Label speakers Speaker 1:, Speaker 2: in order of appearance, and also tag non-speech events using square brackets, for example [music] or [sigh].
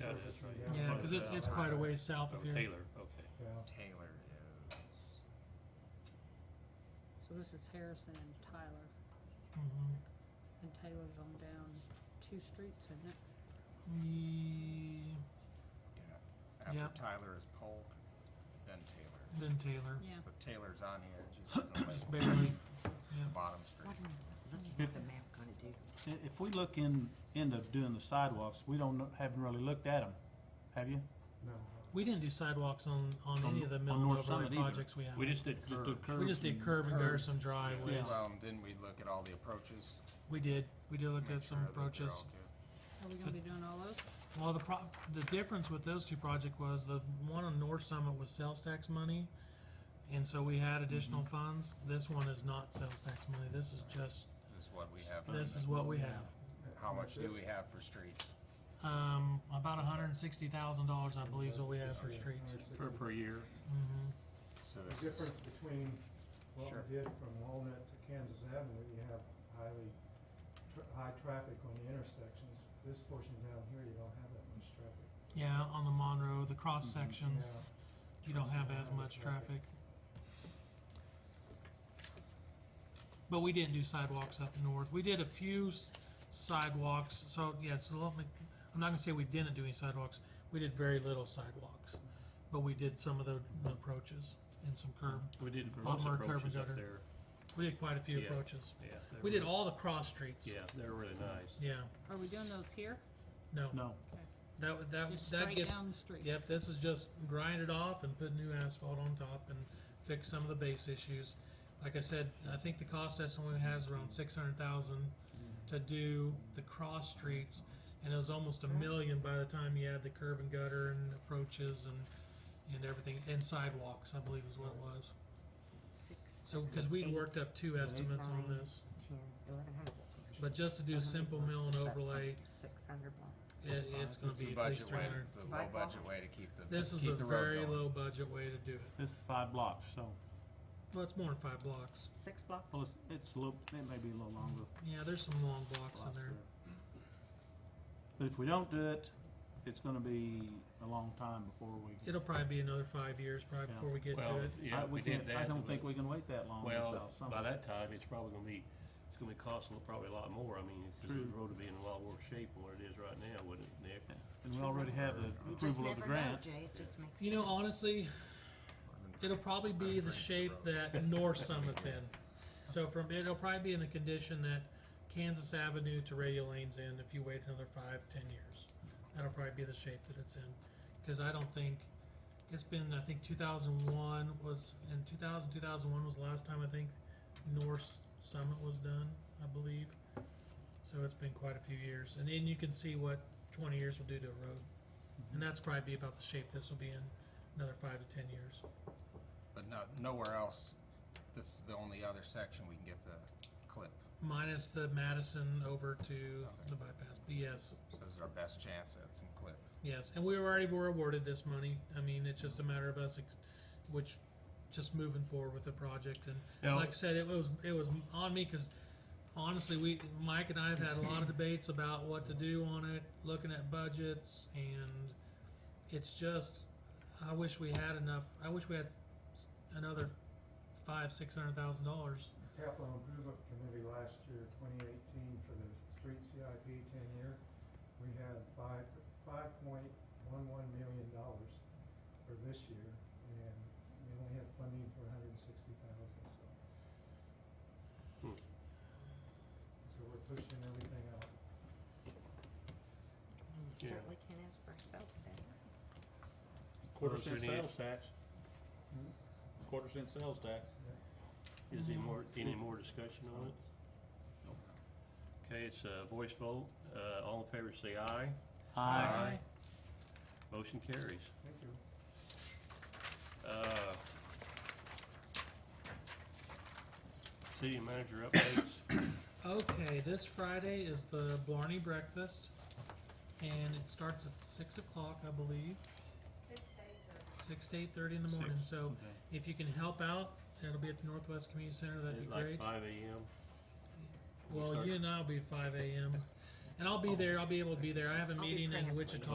Speaker 1: that is, right?
Speaker 2: Yeah,
Speaker 1: But,
Speaker 2: 'cause it's,
Speaker 1: uh,
Speaker 2: it's quite a ways south
Speaker 1: Oh,
Speaker 2: of here.
Speaker 1: Taylor, okay.
Speaker 3: Yeah,
Speaker 4: Taylor is.
Speaker 5: So this is Harrison and Tyler,
Speaker 2: Mhm.
Speaker 5: and Taylor's on down two streets, isn't it?
Speaker 2: Ye-
Speaker 4: Yeah.
Speaker 2: Yeah.
Speaker 4: After Tyler is Polk, then Taylor.
Speaker 2: Then Taylor,
Speaker 5: Yeah.
Speaker 4: So Taylor's on here, it just doesn't list
Speaker 2: just
Speaker 4: [coughs]
Speaker 2: barely,
Speaker 4: the
Speaker 2: yeah.
Speaker 4: bottom street.
Speaker 6: What's the map gonna do?
Speaker 7: I- If we look in, end up doing the sidewalks, we don't, know- haven't really looked at them, have you?
Speaker 3: no.
Speaker 2: We didn't do sidewalks on, on any of the
Speaker 7: On- on
Speaker 2: middle
Speaker 7: North
Speaker 2: overlay
Speaker 7: Summit either.
Speaker 2: projects we have.
Speaker 1: We just did
Speaker 7: Just do
Speaker 1: curves.
Speaker 7: curves.
Speaker 2: We just did
Speaker 7: and-
Speaker 2: curb and
Speaker 4: curves.
Speaker 2: guards some driveways.
Speaker 7: Yeah.
Speaker 4: Well, didn't we look at all the approaches?
Speaker 2: We did, we did look
Speaker 4: Make
Speaker 2: at some
Speaker 4: sure that they're
Speaker 2: approaches.
Speaker 4: all good.
Speaker 5: Are we gonna be doing all those?
Speaker 2: Well, the pro- the difference with those two projects was the one on North Summit was sales tax money, and so we had additional funds. This one is not sales tax money. This is just
Speaker 4: This is what we have.
Speaker 2: this is what we have.
Speaker 4: How much do we have for streets?
Speaker 2: Um, about one hundred and sixty thousand dollars, I believe, is what we have for streets.
Speaker 1: Per, per year.
Speaker 2: hmm
Speaker 4: So
Speaker 3: The
Speaker 4: this is,
Speaker 3: difference between what
Speaker 4: Sure.
Speaker 3: we did from Walnut to Kansas Avenue, you have highly, tr- high traffic on the intersections. This portion down here, you don't have that much traffic.
Speaker 2: Yeah, on the Monroe, the cross
Speaker 7: Mhm.
Speaker 2: sections,
Speaker 3: Yeah.
Speaker 2: you don't have as much traffic. But we didn't do sidewalks up north. We did a few s- sidewalks, so yeah, so let me, I'm not gonna say we didn't do any sidewalks. We did very little sidewalks, but we did some of the the approaches and some curb.
Speaker 1: We did
Speaker 2: Lot
Speaker 1: most
Speaker 2: more curb and
Speaker 1: approaches up
Speaker 2: gutter.
Speaker 1: there,
Speaker 2: We did quite a few
Speaker 1: Yeah.
Speaker 2: approaches.
Speaker 1: yeah. they
Speaker 2: We did
Speaker 1: were-
Speaker 2: all the cross streets.
Speaker 1: Yeah, they're really nice.
Speaker 2: Yeah,
Speaker 5: Are we doing those here?
Speaker 2: no,
Speaker 7: No,
Speaker 2: that, would- that,
Speaker 5: Just
Speaker 2: that
Speaker 5: straight
Speaker 2: gets
Speaker 5: down the street?
Speaker 2: Yep, this is just grind it off and put new asphalt on top and fix some of the base issues. Like I said, I think the cost estimate we had is around six hundred thousand to do the cross streets, and it was almost a million by the time you add the curb and gutter and approaches and, and everything, and sidewalks, I believe is what it was.
Speaker 6: Six,
Speaker 2: So, cause we'd worked up two estimates on
Speaker 6: Nine.
Speaker 2: this,
Speaker 6: ten, eleven hundred.
Speaker 2: but just to do a simple mill and overlay,
Speaker 6: Six hundred block.
Speaker 2: it, it's gonna
Speaker 4: this is
Speaker 2: be
Speaker 4: the
Speaker 2: at least
Speaker 4: budget
Speaker 2: three
Speaker 4: way,
Speaker 2: hundred.
Speaker 4: the low
Speaker 6: Bike
Speaker 4: budget
Speaker 6: lanes.
Speaker 4: way to keep the, keep the road going.
Speaker 2: This is the very low budget way to do it.
Speaker 7: it's five blocks, so,
Speaker 2: Well, it's more than five blocks.
Speaker 6: Six blocks?
Speaker 7: well, it's, it's a little, it may be a little longer.
Speaker 2: Yeah, there's some long blocks in
Speaker 7: blocks
Speaker 2: there.
Speaker 7: there. But if we don't do it, it's gonna be a long time before we,
Speaker 2: It'll probably be another five years probably
Speaker 7: Yeah.
Speaker 2: before we get
Speaker 1: Well,
Speaker 2: to it.
Speaker 1: yeah,
Speaker 7: I,
Speaker 1: if we
Speaker 7: we
Speaker 1: did
Speaker 7: can't,
Speaker 1: that.
Speaker 7: I don't
Speaker 1: but-
Speaker 7: think we can wait that long
Speaker 1: Well,
Speaker 7: without something.
Speaker 1: by that time, it's probably gonna be, it's gonna be costing probably a lot more. I mean, 'cause the
Speaker 7: True.
Speaker 1: road would be in a lot worse shape than what it is right now, wouldn't it, Nick?
Speaker 7: And we already have the
Speaker 6: You just
Speaker 7: approval of
Speaker 6: never
Speaker 7: the
Speaker 6: know,
Speaker 7: grant.
Speaker 6: Jay, it just makes sense.
Speaker 2: You know, honestly, it'll probably be the shape that North Summit's in. So from it'll probably be in the condition that Kansas Avenue to Radio Lane's in if you wait another five, ten years. That'll probably be the shape that it's in. Because I don't think it's been I think two thousand one was in 2000, 2001 was the last time I think North Summit was done, I believe. So it's been quite a few years. And then you can see what twenty years will do to a road. And that's probably be about the shape this will be in another five to ten years.
Speaker 4: But no, nowhere else, this is the only other section we can get the clip.
Speaker 2: Minus the Madison over to the bypass. But yes,
Speaker 4: So this is our best chance at some clip.
Speaker 2: yes. And we already were awarded this money. I mean, it's just a matter of us, ex- which, just moving forward with the project. And
Speaker 1: Now,
Speaker 2: like I said, it was it was on me because honestly, we Mike and I have had a lot of debates about what to do on it, looking at budgets, and it's just I wish we had enough. I wish we had s- s- another five six hundred thousand dollars.
Speaker 3: Capital Improvement Committee last year, twenty eighteen, for the street CIP ten year, we had five, five point one one million dollars for this year, and we only had funding for hundred and sixty thousand, so.
Speaker 1: Hmm.
Speaker 3: So we're pushing everything out.
Speaker 6: And you
Speaker 1: Yeah.
Speaker 6: Certainly can't ask for a sales tax.
Speaker 1: Quarter cent sales
Speaker 7: tax.
Speaker 3: Hmm?
Speaker 7: Quarter cent sales tax.
Speaker 1: Is there any more, any more discussion on it? Okay, it's a voice vote. Uh, all in favor, say aye.
Speaker 7: Aye.
Speaker 1: Motion carries.
Speaker 3: Thank you.
Speaker 1: Uh, City manager updates.
Speaker 2: Okay, this Friday is the Blarney Breakfast, and it starts at six o'clock, I believe. Six to eight thirty. in the morning,
Speaker 1: Six,
Speaker 2: so if you can help out, it'll be at the Northwest Community Center, that'd be
Speaker 1: At Like
Speaker 2: great.
Speaker 1: five AM. Oh.
Speaker 2: Well, you and I'll be five AM, and I'll be there, I'll be able to be there, I have a
Speaker 6: I'll be
Speaker 2: meeting in
Speaker 6: praying for
Speaker 2: Wichita